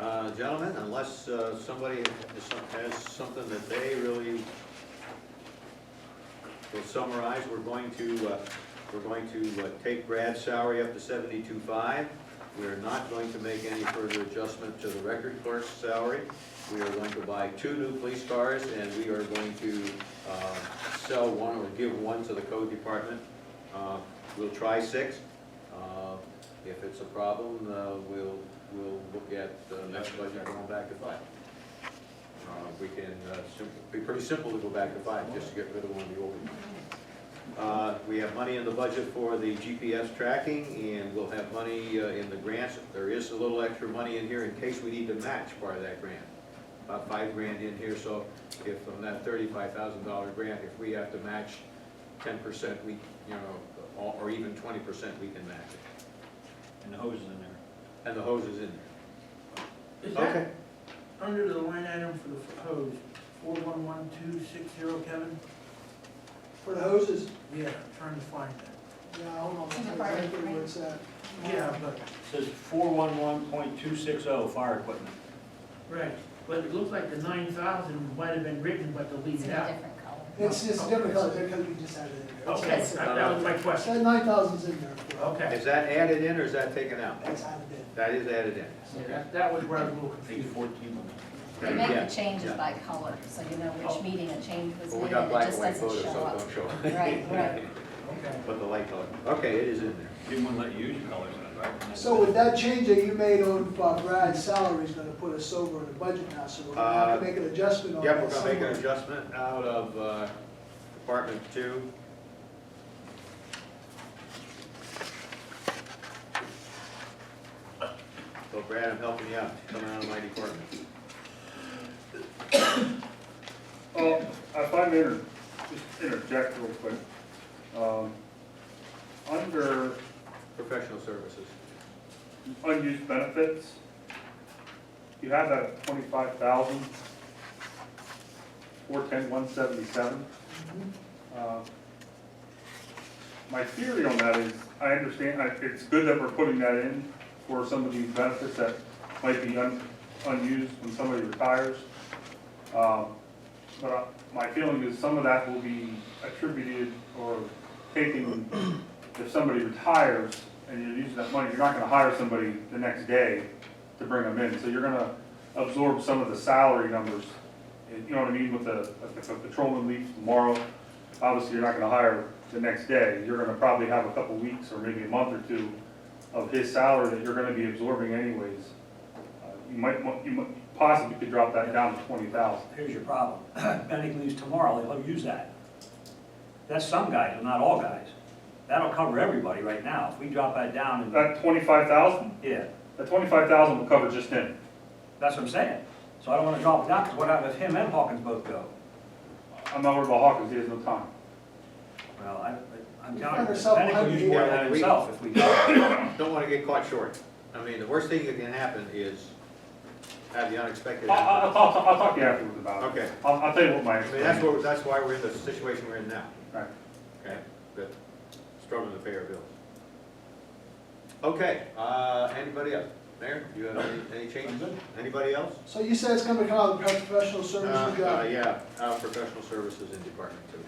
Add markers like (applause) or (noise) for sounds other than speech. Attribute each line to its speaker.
Speaker 1: Uh, gentlemen, unless uh, somebody has some- has something that they really will summarize, we're going to, uh, we're going to uh, take Brad's salary up to seventy-two five. We are not going to make any further adjustment to the record clerk's salary. We are going to buy two new police cars, and we are going to uh, sell one or give one to the code department. Uh, We'll try six. Uh, If it's a problem, uh, we'll, we'll look at the next budget going back to five. Uh, We can, uh, sim- be pretty simple to go back to five, just to get rid of one of the old ones. Uh, We have money in the budget for the GPS tracking, and we'll have money uh, in the grants. There is a little extra money in here in case we need to match part of that grant. About five grand in here, so if on that thirty-five thousand dollar grant, if we have to match ten percent, we, you know, or or even twenty percent, we can match it.
Speaker 2: And the hose is in there.
Speaker 1: And the hose is in there.
Speaker 3: Is that under the line item for the hose, four one one two six zero, Kevin?
Speaker 4: For the hoses,
Speaker 3: Yeah, I'm trying to find that.
Speaker 4: yeah, I don't know
Speaker 5: In the fire
Speaker 4: exactly where it's at.
Speaker 3: Yeah, but,
Speaker 2: It Says four one one point two six oh, fire equipment.
Speaker 3: right, but it looks like the nine thousand might have been written, but they'll
Speaker 5: It's
Speaker 3: leave
Speaker 5: in
Speaker 3: it
Speaker 5: a
Speaker 3: out.
Speaker 5: different color.
Speaker 4: It's, it's different color because we just added it. in there.
Speaker 3: Okay,
Speaker 4: So
Speaker 3: that that was my
Speaker 4: it's- uh,
Speaker 3: question.
Speaker 4: That nine thousand's in there.
Speaker 3: Okay,
Speaker 1: (laughs) Is that added in or is that taken out?
Speaker 4: That's added in.
Speaker 1: That is added in.
Speaker 3: Yeah, that, that was where I was a little
Speaker 2: I think
Speaker 3: confused.
Speaker 2: it's fourteen on it.
Speaker 5: They make
Speaker 1: Yeah,
Speaker 5: the changes
Speaker 1: yeah.
Speaker 5: by color, so you know
Speaker 3: Oh.
Speaker 5: which meeting a change was
Speaker 1: But we
Speaker 5: made,
Speaker 1: got
Speaker 5: and it
Speaker 1: black and
Speaker 5: just
Speaker 1: white
Speaker 5: doesn't
Speaker 1: photos,
Speaker 5: show
Speaker 1: so
Speaker 5: up.
Speaker 1: don't show.
Speaker 5: Right, right.
Speaker 3: Okay.
Speaker 1: (laughs) But the light color, okay, it is in there.
Speaker 2: Didn't want to let you use your colors in it, right?
Speaker 4: So with that change that you made on uh, Brad's salary is gonna put us over in the budget now, so we're gonna have to
Speaker 1: Uh,
Speaker 4: make an adjustment on
Speaker 1: Yep, we're
Speaker 4: that
Speaker 1: gonna make an
Speaker 4: somewhere.
Speaker 1: adjustment out of uh, Department Two. So Brad, I'm helping you out, coming out of my department.
Speaker 6: Uh, if I may inter- just interject real quick, um, under
Speaker 1: Professional services,
Speaker 6: unused benefits, you have that at twenty-five thousand, four ten, one seventy-seven. Uh, My theory on that is, I understand, I, it's good that we're putting that in for some of these benefits that might be un, unused when somebody retires. Um, But I- my feeling is some of that will be attributed or taken, if somebody retires and you're using that money, you're not gonna hire somebody the next day to bring them in, so you're gonna absorb some of the salary numbers. And You know what I mean, with the, if a patrolman leaves tomorrow, obviously you're not gonna hire the next day. You're gonna probably have a couple weeks or maybe a month or two of his salary that you're gonna be absorbing anyways. Uh, You might, want- you might possibly could drop that down to twenty thousand.
Speaker 7: Here's your problem. (clears throat) Benny leaves tomorrow, he'll use that. That's some guys, but not all guys. That'll cover everybody right now. If we drop that down and,
Speaker 6: That Uh, twenty-five thousand,
Speaker 7: yeah,
Speaker 6: that twenty-five thousand will cover just him.
Speaker 7: that's what I'm saying. So I don't wanna drop it down, because what happens if him and Hawkins both go?
Speaker 6: I'm not worried about Hawkins, he has no time.
Speaker 7: Well, I, I'm
Speaker 4: Find
Speaker 7: telling you,
Speaker 4: yourself
Speaker 7: Benny could use more than that
Speaker 1: unhappy.
Speaker 7: himself if we go.
Speaker 1: don't wanna get caught short. I mean, the worst thing that can happen is have the unexpected
Speaker 6: I- I- I'll,
Speaker 1: happen.
Speaker 6: talk- I'll talk to you afterwards about it.
Speaker 1: Okay.
Speaker 6: I'll, I'll tell you what my.
Speaker 1: I mean, that's what, that's why we're in the situation we're in now.
Speaker 6: Right.
Speaker 1: Okay, good. Struggling to pay our bills. Okay, uh, anybody else? Mayor, you have any- any
Speaker 2: I'm
Speaker 1: changes?
Speaker 2: good.
Speaker 1: Anybody else?
Speaker 4: So you said it's gonna come out of the professional
Speaker 1: Uh,
Speaker 4: services
Speaker 1: uh,
Speaker 4: guy.
Speaker 1: yeah, uh, professional services in department two.